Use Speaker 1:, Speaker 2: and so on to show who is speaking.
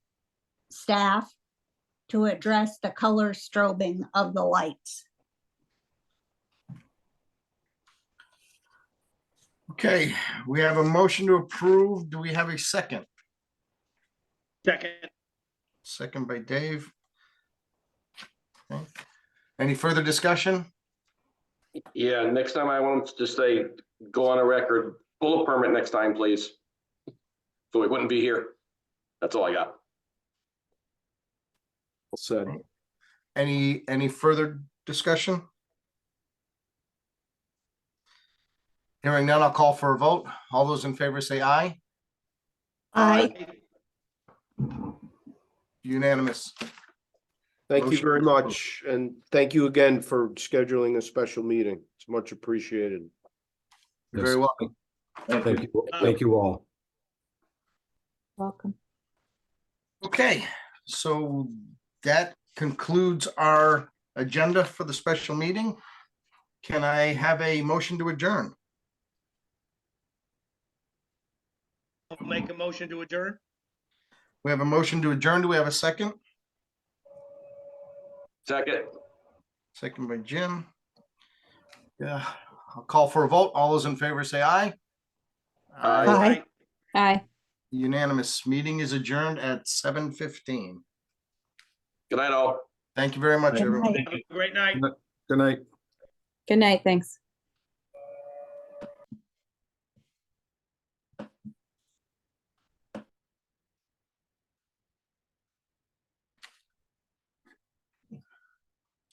Speaker 1: staff to address the color strobing of the lights.
Speaker 2: Okay, we have a motion to approve. Do we have a second?
Speaker 3: Second,
Speaker 2: Second by Dave. Okay. Any further discussion?
Speaker 4: Yeah, next time I want to say, go on a record, pull a permit next time, please. So we wouldn't be here. That's all I got.
Speaker 5: said.
Speaker 2: Any, any further discussion? Hearing none, I'll call for a vote. All those in favor say aye.
Speaker 1: I,
Speaker 2: Unanimous.
Speaker 5: Thank you
Speaker 2: Motion
Speaker 5: very
Speaker 2: approved.
Speaker 5: much, and thank you again for scheduling a special meeting. It's much appreciated.
Speaker 2: You're very
Speaker 6: Yes.
Speaker 2: welcome.
Speaker 6: Thank you, thank you all.
Speaker 7: Welcome.
Speaker 2: Okay, so that concludes our agenda for the special meeting. Can I have a motion to adjourn?
Speaker 3: I'll make a motion to adjourn.
Speaker 2: We have a motion to adjourn. Do we have a second?
Speaker 4: Second,
Speaker 2: Second by Jim. Yeah, I'll call for a vote. All those in favor say aye.
Speaker 1: Aye.
Speaker 4: Aye.
Speaker 7: Aye.
Speaker 2: Unanimous. Meeting is adjourned at seven fifteen.
Speaker 4: good night all.
Speaker 2: Thank you very much,
Speaker 6: Good
Speaker 2: everyone.
Speaker 3: Have a Great night.
Speaker 6: Good night.
Speaker 7: Good night. Thanks.